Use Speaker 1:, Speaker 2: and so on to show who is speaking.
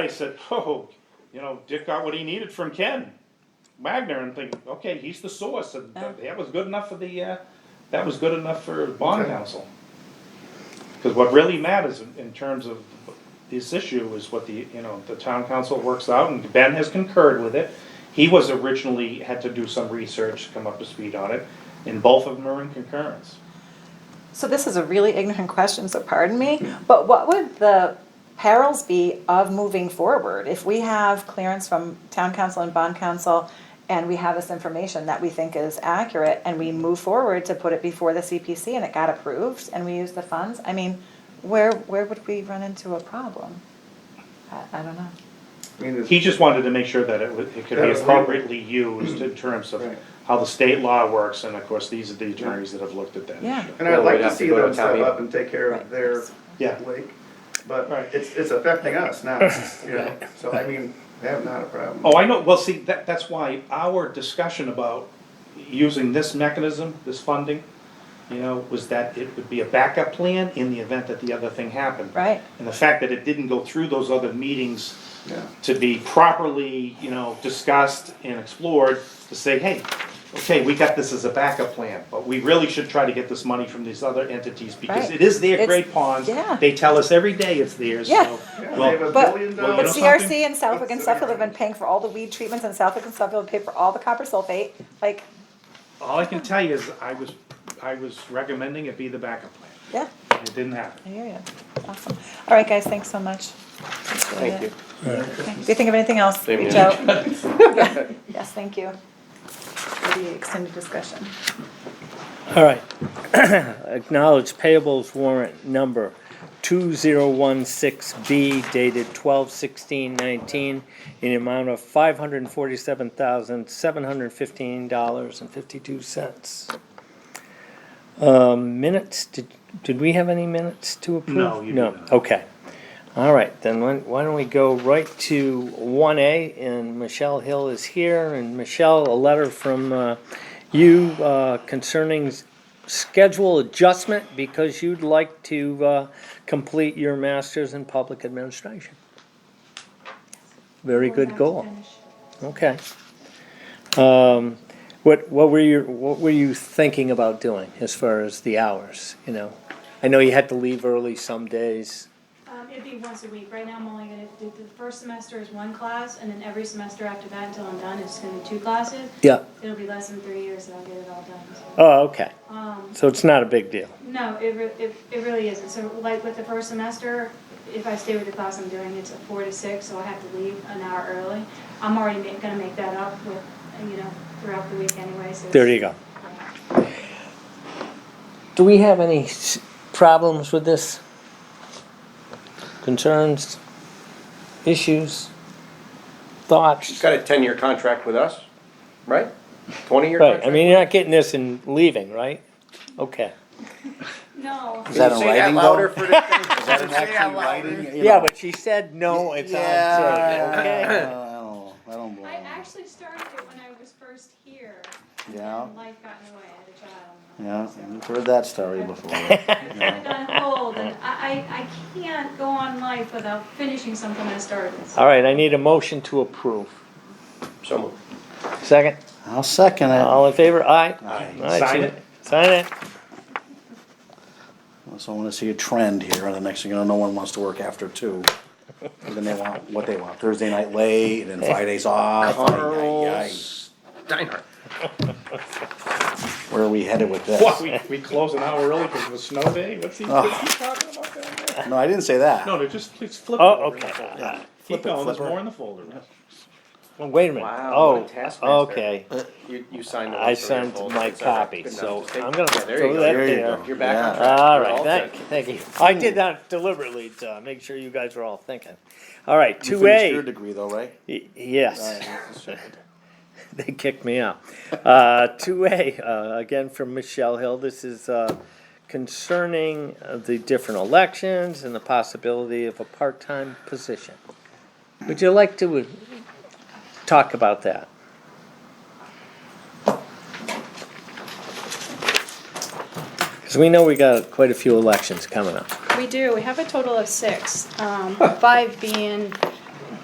Speaker 1: I said, oh, you know, Dick got what he needed from Ken Wagner, and think, okay, he's the source, and
Speaker 2: Yeah.
Speaker 1: that, that was good enough for the, uh, that was good enough for bond
Speaker 3: Okay.
Speaker 1: council. Because what really matters in, in terms of this issue is what the, you know, the town council works out, and Ben has concurred with it. He was originally, had to do some research, come up to speed on it, and both of them are in concurrence.
Speaker 2: So this is a really ignorant question, so pardon me, but what would the perils be of moving forward? If we have clearance from town council and bond council, and we have this information that we think is accurate, and we move forward to put it before the CPC, and it got approved, and we use the funds, I mean, where, where would we run into a problem? I, I don't know.
Speaker 3: I mean,
Speaker 1: He
Speaker 3: it's-
Speaker 1: just wanted to make sure that it, wa- it could
Speaker 3: That
Speaker 1: be
Speaker 3: it's legal.
Speaker 1: appropriately used in terms of
Speaker 3: Right.
Speaker 1: how the state law works, and of course, these are the attorneys that have looked at that
Speaker 2: Yeah.
Speaker 1: issue.
Speaker 3: and I'd
Speaker 4: Well,
Speaker 3: like
Speaker 4: we'd
Speaker 3: to
Speaker 4: have
Speaker 3: see
Speaker 4: to go to
Speaker 3: them
Speaker 4: town
Speaker 3: step
Speaker 4: meeting.
Speaker 3: up and take care
Speaker 2: Right.
Speaker 3: of their
Speaker 1: Yeah.
Speaker 3: lake, but
Speaker 1: Right.
Speaker 3: it's, it's affecting us now, you know, so I mean, they have not a problem.
Speaker 1: Oh, I know, well, see, that, that's why our discussion about using this mechanism, this funding, you know, was that it would be a backup plan in the event that the other thing happened.
Speaker 2: Right.
Speaker 1: And the fact that it didn't go through those other meetings
Speaker 3: Yeah.
Speaker 1: to be properly, you know, discussed and explored, to say, hey, okay, we got this as a backup plan, but we really should try to get this money from these other entities, because it
Speaker 2: Right.
Speaker 1: is their
Speaker 2: It's-
Speaker 1: great ponds.
Speaker 2: yeah.
Speaker 1: They tell us every day it's theirs, so.
Speaker 2: Yeah.
Speaker 3: Yeah,
Speaker 1: well,
Speaker 3: they have a
Speaker 2: But-
Speaker 3: billion
Speaker 1: Well, you
Speaker 2: But
Speaker 1: know
Speaker 3: dollars.
Speaker 2: CRC
Speaker 1: something?
Speaker 2: and Southwick and Suffield have been paying for all the weed treatments, and Southwick and Suffield pay for all the copper sulfate, like,
Speaker 1: All I can tell you is I was, I was recommending it be the backup plan.
Speaker 2: yeah.
Speaker 1: It didn't happen.
Speaker 2: I hear you. Awesome. All right, guys, thanks so much. Thank
Speaker 4: you.
Speaker 2: If you think of anything else,
Speaker 4: Blame
Speaker 2: reach
Speaker 4: you.
Speaker 2: out. Yeah. Yes, thank you. For the extended discussion.
Speaker 5: All right. Acknowledge payables warrant number 2016B dated 12/16/19 in the amount of $547,715.52. Um, Minutes, did did we have any minutes to approve?
Speaker 1: No, you
Speaker 5: No,
Speaker 1: did not.
Speaker 5: okay. All right, then why why don't we go right to 1A, and Michelle Hill is here. And Michelle, a letter from uh, you uh, concerning s- schedule adjustment because you'd like to uh, complete your master's in public administration. Very good goal. Okay. Um, What, what were your, what were you thinking about doing as far as the hours, you know? I know you had to leave early some days.
Speaker 6: Um, it'd be once a week. Right now, I'm only gonna do, the first semester is one class, and then every semester after that until I'm done, it's gonna be two classes.
Speaker 5: Yeah.
Speaker 6: It'll be less than three years and I'll get it all done, so.
Speaker 5: Oh, okay.
Speaker 6: Um,
Speaker 5: So it's not a big deal.
Speaker 6: no, it re- it, it really isn't. So like with the first semester, if I stay with the class I'm doing, it's a four to six, so I have to leave an hour early. I'm already ma- gonna make that up with, you know, throughout the week anyway, so.
Speaker 5: There you go. Do we have any s- problems with this? Concerns? Issues?
Speaker 4: She's
Speaker 5: Thoughts?
Speaker 4: got a ten-year contract with us, right? Twenty-year
Speaker 5: Right,
Speaker 4: contract?
Speaker 5: I mean, you're not getting this and leaving, right? Okay.
Speaker 6: No.
Speaker 7: Is that in
Speaker 4: Say that
Speaker 7: writing
Speaker 4: louder
Speaker 7: though?
Speaker 4: for the.
Speaker 7: Is that in
Speaker 4: Say that
Speaker 7: actually writing? You
Speaker 5: Yeah,
Speaker 7: know?
Speaker 5: but she said no, it's on tape,
Speaker 7: Yeah. I
Speaker 5: okay?
Speaker 7: don't know. I don't blame
Speaker 6: I
Speaker 7: her.
Speaker 6: actually started it when I was first here. and
Speaker 7: Yeah.
Speaker 6: then Life got in the way, I had a child. and all
Speaker 7: Yeah,
Speaker 6: that, so.
Speaker 7: we've heard that story before.
Speaker 6: I've put it on hold, and I, I, I can't go on life without finishing something I started.
Speaker 5: All right, I need a motion to approve.
Speaker 4: Someone.
Speaker 5: Second?
Speaker 7: I'll second it.
Speaker 5: All in favor? Aye.
Speaker 7: Aye.
Speaker 5: All right,
Speaker 1: Sign
Speaker 5: see-
Speaker 1: it.
Speaker 5: Sign it.
Speaker 7: So I wanna see a trend here, and the next thing you know, no one wants to work after two. And Then they want, what they want, Thursday night late, and then Fridays off. Ay, ay, ay.
Speaker 4: Steinhardt.
Speaker 7: Where are we headed with
Speaker 1: What,
Speaker 7: this?
Speaker 1: we, we close an hour early because of a snow day? What's he,
Speaker 7: Oh.
Speaker 1: what's he talking about down there?
Speaker 7: No, I didn't say that.
Speaker 1: No, no, just, please flip it
Speaker 5: Oh,
Speaker 1: over in the
Speaker 5: okay.
Speaker 1: folder.
Speaker 7: Yeah.
Speaker 1: Keep
Speaker 7: Flip it,
Speaker 1: going, there's
Speaker 7: flip it.
Speaker 1: more in the folder.
Speaker 5: Well, wait a minute.
Speaker 4: Wow,
Speaker 5: Oh,
Speaker 4: what a taskmaster.
Speaker 5: okay.
Speaker 4: You, you signed the.
Speaker 5: I
Speaker 4: list, so you're
Speaker 5: signed
Speaker 4: both-
Speaker 5: my
Speaker 4: it's all right.
Speaker 5: copy,
Speaker 4: Good enough.
Speaker 5: so
Speaker 4: Just take-
Speaker 5: I'm gonna
Speaker 4: Yeah, there
Speaker 5: throw
Speaker 4: you go.
Speaker 5: that
Speaker 7: There you
Speaker 5: there.
Speaker 7: go.
Speaker 4: You're back on
Speaker 7: Yeah.
Speaker 4: track.
Speaker 5: All
Speaker 4: You're
Speaker 5: right,
Speaker 4: all
Speaker 5: thank,
Speaker 4: set.
Speaker 5: thank you. I did that deliberately to make sure you guys were all thinking. All right,
Speaker 7: You
Speaker 5: two
Speaker 7: finished your
Speaker 5: A.
Speaker 7: degree though, right?
Speaker 5: Yes,
Speaker 7: Alright,
Speaker 5: they kicked me out. Uh, two A, uh, again from Michelle Hill. This is, uh, concerning uh, the different elections and the possibility of a part-time position. Would you like to uh, talk about that? Because we know we got quite a few elections coming up.
Speaker 6: We do, we have a total of six, um, five being